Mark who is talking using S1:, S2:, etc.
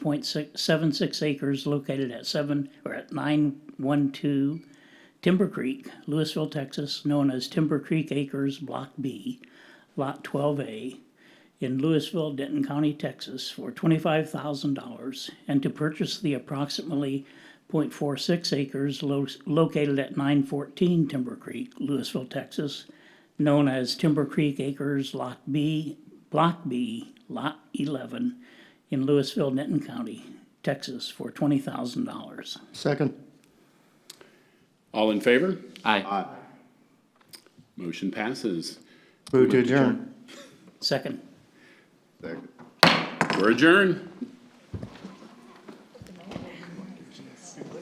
S1: point six, seven six acres located at seven, or at nine one two Timber Creek, Louisville, Texas, known as Timber Creek Acres Block B, Lot twelve A, in Louisville, Denton County, Texas, for twenty-five thousand dollars, and to purchase the approximately 0.46 acres lo- located at nine fourteen Timber Creek, Louisville, Texas, known as Timber Creek Acres Lot B, Block B, Lot eleven, in Louisville, Denton County, Texas, for twenty thousand dollars.
S2: Second.
S3: All in favor?
S4: Aye.
S3: Motion passes.
S2: Move to adjourn.
S1: Second.
S3: We're adjourned.